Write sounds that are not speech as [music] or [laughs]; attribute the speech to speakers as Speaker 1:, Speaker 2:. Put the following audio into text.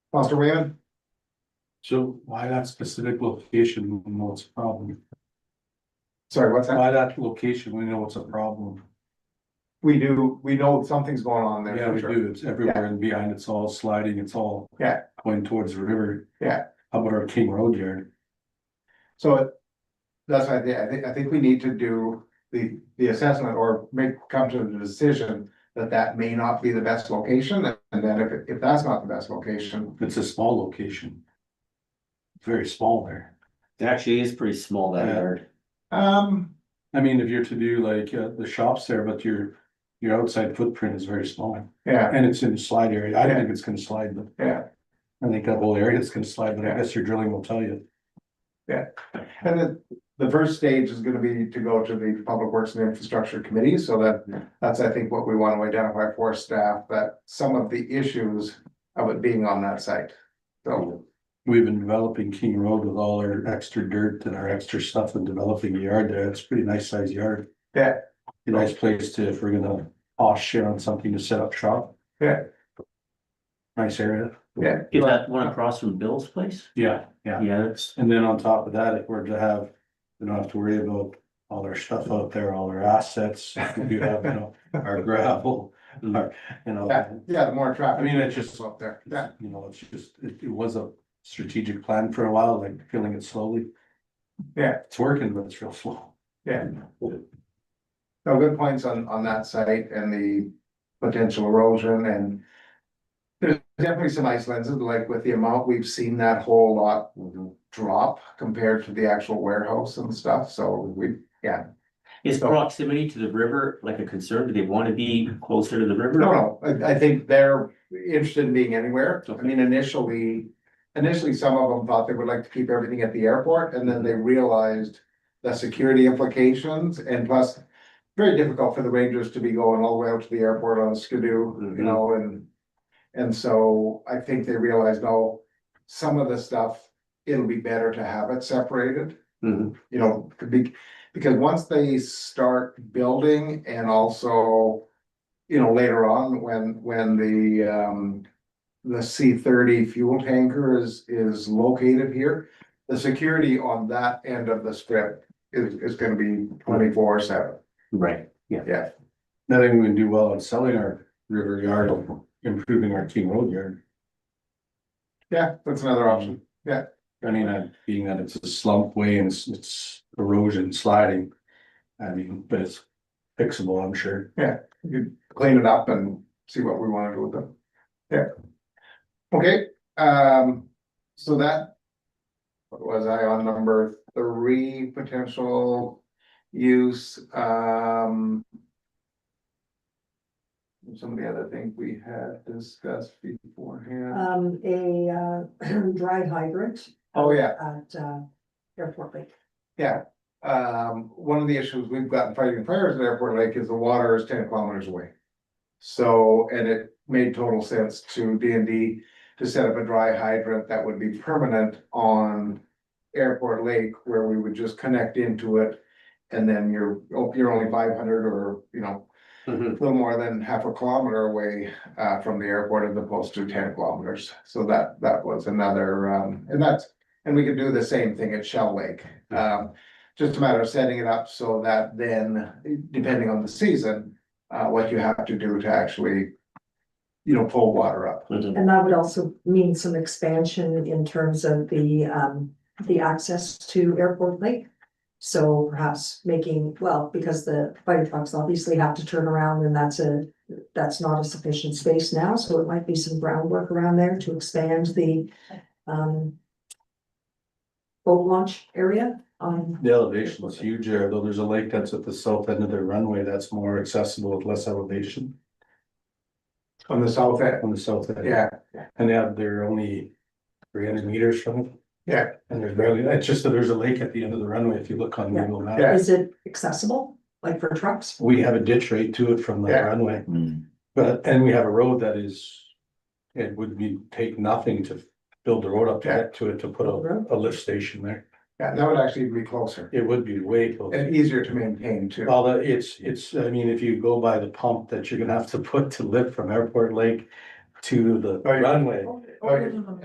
Speaker 1: Foster Wayman,
Speaker 2: So why that specific location, we know it's a problem?
Speaker 1: sorry, what's that?
Speaker 2: Why that location, we know it's a problem.
Speaker 1: We do, we know something's going on there.
Speaker 2: Yeah,
Speaker 1: for
Speaker 2: we
Speaker 1: sure.
Speaker 2: do, it's everywhere and behind, it's all sliding, it's all.
Speaker 1: Yeah.
Speaker 2: Going towards the river.
Speaker 1: Yeah.
Speaker 2: How about our King Road yard?
Speaker 1: So it- that's why I think, I think, I think we need to do the, the assessment or make, come to the decision that that may not be the best location, and then if, if that's not the best location,
Speaker 2: It's a small location. Very small there.
Speaker 3: It actually is pretty small that
Speaker 2: Yeah.
Speaker 3: yard.
Speaker 1: um,
Speaker 2: I mean, if you're to do like uh, the shops there, but your, your outside footprint is very small.
Speaker 1: yeah,
Speaker 2: And it's in the slide area. I don't think it's gonna slide, but
Speaker 1: yeah.
Speaker 2: I think that whole area is gonna slide, but I guess your drilling will tell you.
Speaker 1: And the, the first stage is gonna be to go to the Public Works and Infrastructure Committee, so that, that's, I think, what we want to identify for staff, that some of the issues of it being on that site. So,
Speaker 2: We've been developing King Road with all our extra dirt and our extra stuff and developing a yard there. It's a pretty nice sized yard.
Speaker 1: Yeah.
Speaker 2: A nice place to, if we're gonna off share on something to set up shop.
Speaker 1: Yeah.
Speaker 2: Nice area.
Speaker 1: yeah,
Speaker 3: Is that one across from Bill's place?
Speaker 2: Yeah, yeah.
Speaker 3: Yeah, it's,
Speaker 2: And then on top of that, if we're to have, we don't have to worry about all our stuff out there, all our assets. We do have, you know, our [laughs] gravel, our,
Speaker 1: yeah,
Speaker 2: you know.
Speaker 1: yeah, the more
Speaker 2: I
Speaker 1: traffic.
Speaker 2: mean, it's just,
Speaker 1: Up there, yeah.
Speaker 2: you know, it's just, it, it was a strategic plan for a while, like killing it slowly.
Speaker 1: Yeah.
Speaker 2: It's working, but it's real slow.
Speaker 1: Yeah. No, good points on, on that site and the potential erosion and. There's definitely some islands, like with the amount we've seen that whole lot drop compared to the actual warehouse and stuff, so we,
Speaker 3: is proximity to the river like a concern? Do they want to be closer to the river?
Speaker 1: no, no, I, I think they're interested in being anywhere. I
Speaker 3: Okay.
Speaker 1: mean, initially, initially, some of them thought they would like to keep everything at the airport, and then they realized the security implications, and plus, very difficult for the rangers to be going all the way out to the airport on a skidoo, you
Speaker 3: Mhm.
Speaker 1: know, and and so I think they realized, no, some of the stuff, it'll be better to have it separated
Speaker 3: Mhm.
Speaker 1: you know, could be, because once they start building and also. You know, later on, when, when the, um, the C thirty fuel tanker is, is located here. The security on that end of the strip is, is gonna be twenty-four seven,
Speaker 3: Right,
Speaker 1: yeah,
Speaker 2: Nothing we can do well on selling our river yard, or improving our King Road yard.
Speaker 1: yeah, that's another option.
Speaker 2: I mean, uh, being that it's a slump way and it's, it's erosion sliding. I mean, but it's fixable, I'm sure.
Speaker 1: you clean it up and see what we wanna do with them. Yeah. Okay, um, so that. What was I on number three, potential use, um. Some of the other things we had discussed beforehand.
Speaker 4: um, a, uh, [clears throat] dry hydrant.
Speaker 1: Oh, yeah.
Speaker 4: At, uh, Airport Lake.
Speaker 1: Yeah, um, one of the issues we've gotten fighting fires at Airport Lake is the water is ten kilometers away. So, and it made total sense to D and D to set up a dry hydrant that would be permanent on. Airport Lake where we would just connect into it. And then you're, oh, you're only five hundred or, you know,
Speaker 3: Mhm.
Speaker 1: a little more than half a kilometer away uh from the airport as opposed to ten kilometers. So that that was another um, and that's, and we could do the same thing at Shell Lake. Um, just a matter of setting it up so that then, depending on the season, uh, what you have to do to actually. You know, pull water up.
Speaker 3: Mhm.
Speaker 4: And that would also mean some expansion in terms of the, um, the access to Airport Lake. So perhaps making, well, because the fire trucks obviously have to turn around and that's a, that's not a sufficient space now, so it might be some groundwork around there to expand the, um, boat launch area Um, on
Speaker 2: The elevation is huge there, though there's a lake that's at the south end of their runway that's more accessible with less elevation
Speaker 1: On the south end.
Speaker 2: on the south end.
Speaker 1: Yeah,
Speaker 2: And they have, they're only three hundred meters from it.
Speaker 1: Yeah.
Speaker 2: And there's barely, it's just that there's a lake at the end of the runway if you look on
Speaker 4: Yeah.
Speaker 2: Google
Speaker 1: Yeah.
Speaker 2: Maps.
Speaker 4: Is it accessible, like for trucks?
Speaker 2: We have a ditch right to it from the
Speaker 1: Yeah.
Speaker 2: runway,
Speaker 3: Hmm.
Speaker 2: but, and we have a road that is. It would be, take nothing to build the road up to
Speaker 1: Yeah. Mm-hmm.
Speaker 2: get to it, to put a, a lift station there.
Speaker 1: yeah, that would actually be closer
Speaker 2: It would be way close.
Speaker 1: and easier to maintain too.
Speaker 2: Although it's, it's, I mean, if you go by the pump [laughs] that you're gonna have to put to lift from Airport Lake to the
Speaker 1: Oh, yeah.
Speaker 4: é
Speaker 2: runway.
Speaker 1: Okay.